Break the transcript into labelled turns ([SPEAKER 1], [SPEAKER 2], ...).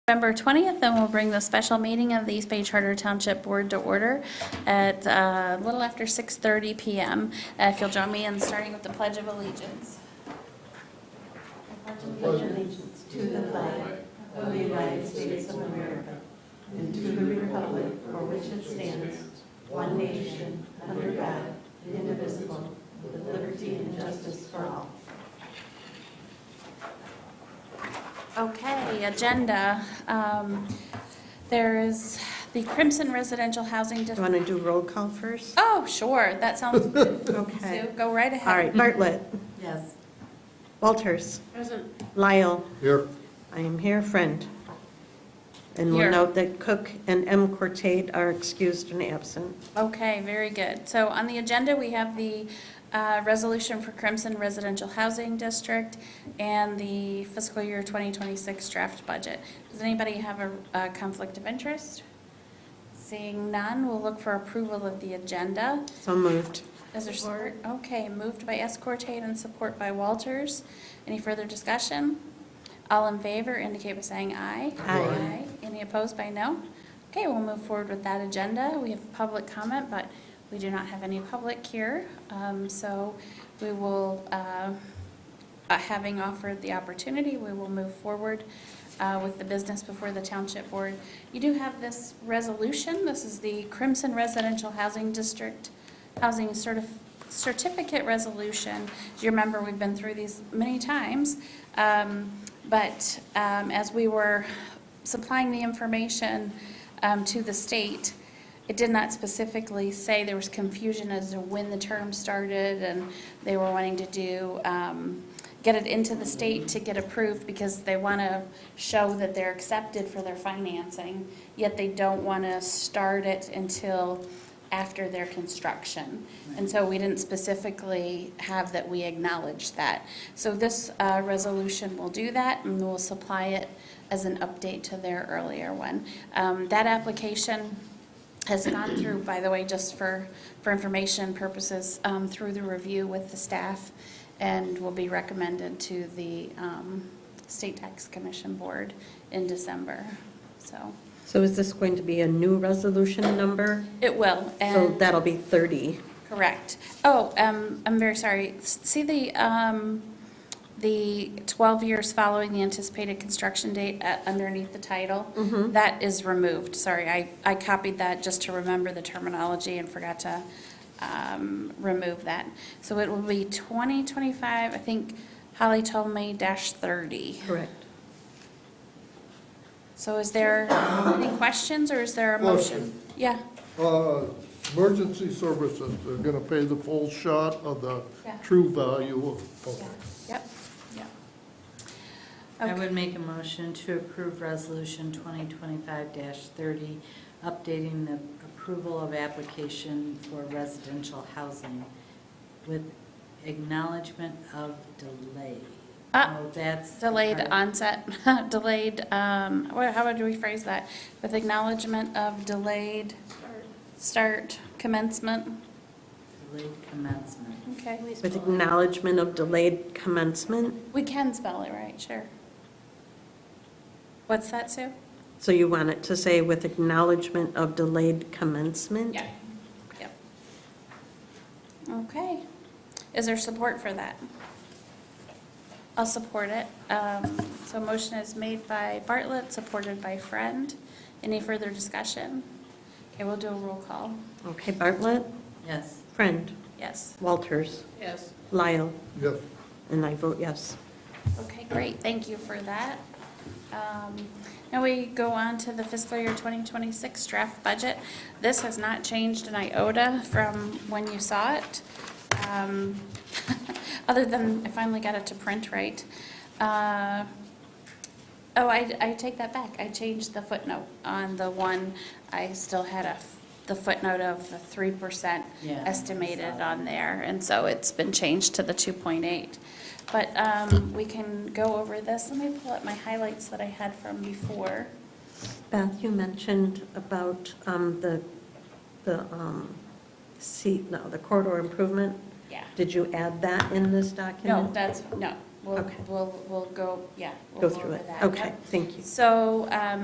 [SPEAKER 1] November 20th, and we'll bring the special meeting of the East Bay Charter Township Board to order at uh, a little after 6:30 PM. Uh, If you'll join me in starting with the Pledge of Allegiance. Okay, agenda. Um, There is the Crimson Residential Housing
[SPEAKER 2] Do you
[SPEAKER 1] District.
[SPEAKER 2] want to do roll call first?
[SPEAKER 1] Oh, sure, that sounds good.
[SPEAKER 2] Okay.
[SPEAKER 1] Sue, go right
[SPEAKER 2] All
[SPEAKER 1] ahead.
[SPEAKER 2] right, Bartlett,
[SPEAKER 3] Yes.
[SPEAKER 2] Walters. Lyle,
[SPEAKER 4] Here,
[SPEAKER 2] I am here, friend. And we'll
[SPEAKER 1] Here.
[SPEAKER 2] note that Cook and M. Cortate are excused and absent.
[SPEAKER 1] Okay, very good. So on the agenda, we have the uh, resolution for Crimson Residential Housing District and the fiscal year 2026 draft budget. Does anybody have a a conflict of interest? Seeing none, we'll look for approval of the agenda.
[SPEAKER 2] So moved.
[SPEAKER 1] Is there support? Okay, moved by Escortate and support by Walters. Any further discussion? All in favor indicate by saying aye.
[SPEAKER 2] Aye.
[SPEAKER 1] Any opposed by no? Okay, we'll move forward with that agenda. We have public comment, but we do not have any public here. Um, So we will, uh, uh, having offered the opportunity, we will move forward uh, with the business before the Township Board. You do have this resolution. This is the Crimson Residential Housing District Housing Certif- Certificate Resolution. As you remember, we've been through these many times. Um, But um, as we were supplying the information um, to the state, it did not specifically say, there was confusion as to when the term started, and they were wanting to do, um, get it into the state to get approved, because they want to show that they're accepted for their financing, yet they don't want to start it until after their construction. And so we didn't specifically have that we acknowledged that. So this uh, resolution will do that, and we'll supply it as an update to their earlier one. Um, That application has gone through, by the way, just for, for information purposes, um, through the review with the staff and will be recommended to the um, State Tax Commission Board in December. So
[SPEAKER 2] So is this going to be a new resolution number?
[SPEAKER 1] it will.
[SPEAKER 2] So
[SPEAKER 1] and-
[SPEAKER 2] that'll be 30.
[SPEAKER 1] Correct. Oh, um, I'm very sorry. S- See the, um, the 12 years following the anticipated construction date uh, underneath the title? That is removed. Sorry, I, I copied that just to remember the terminology and forgot to um, remove that. So it will be 2025, I think Holly told me, dash 30.
[SPEAKER 2] Correct.
[SPEAKER 1] So is there any questions or is there a motion?
[SPEAKER 4] Motion.
[SPEAKER 1] Yeah,
[SPEAKER 4] uh, emergency services, they're gonna pay the full shot of the
[SPEAKER 1] Yeah.
[SPEAKER 4] true value
[SPEAKER 1] yeah,
[SPEAKER 4] of,
[SPEAKER 1] yep, yep.
[SPEAKER 3] I
[SPEAKER 1] Okay.
[SPEAKER 3] would make a motion to approve Resolution 2025-30, updating the approval of application for residential housing with acknowledgement of delay.
[SPEAKER 1] Ah,
[SPEAKER 3] Oh, that's. the
[SPEAKER 1] Delayed
[SPEAKER 3] part.
[SPEAKER 1] onset, delayed, um, wha- how would we phrase that? With acknowledgement of delayed start commencement,
[SPEAKER 3] Delayed commencement.
[SPEAKER 1] okay?
[SPEAKER 2] With acknowledgement of delayed commencement.
[SPEAKER 1] We can spell it right, sure. What's that, Sue?
[SPEAKER 2] So you want it to say with acknowledgement of delayed commencement?
[SPEAKER 1] Yeah, yep. Okay. Is there support for that? I'll support it. Um, So motion is made by Bartlett, supported by Friend. Any further discussion? Okay, we'll do a roll call.
[SPEAKER 2] Okay, Bartlett,
[SPEAKER 3] Yes.
[SPEAKER 2] Friend,
[SPEAKER 1] Yes.
[SPEAKER 2] Walters,
[SPEAKER 1] Yes.
[SPEAKER 2] Lyle,
[SPEAKER 4] yes,
[SPEAKER 2] and I vote yes.
[SPEAKER 1] Okay, great, thank you for that. Um, Now we go on to the fiscal year 2026 draft budget. This has not changed an iota from when you saw it, um, other than I finally got it to print right. Uh, Oh, I, I take that back. I changed the footnote on the one. I still had a, f- the footnote of the 3%
[SPEAKER 3] Yeah, I saw
[SPEAKER 1] estimated
[SPEAKER 3] that.
[SPEAKER 1] on there, and so it's been changed to the 2.8. But um, we can go over this. Let me pull up my highlights that I had from before.
[SPEAKER 2] Beth, you mentioned about um, the, the um, seat, no, the corridor improvement.
[SPEAKER 1] Yeah.
[SPEAKER 2] Did you add that in this document?
[SPEAKER 1] No, that's, no. We'll,
[SPEAKER 2] Okay.
[SPEAKER 1] we'll, we'll go, yeah.
[SPEAKER 2] Go
[SPEAKER 1] we'll
[SPEAKER 2] through
[SPEAKER 1] over
[SPEAKER 2] it.
[SPEAKER 1] that.
[SPEAKER 2] Okay,
[SPEAKER 1] Yep.
[SPEAKER 2] thank you.
[SPEAKER 1] So um,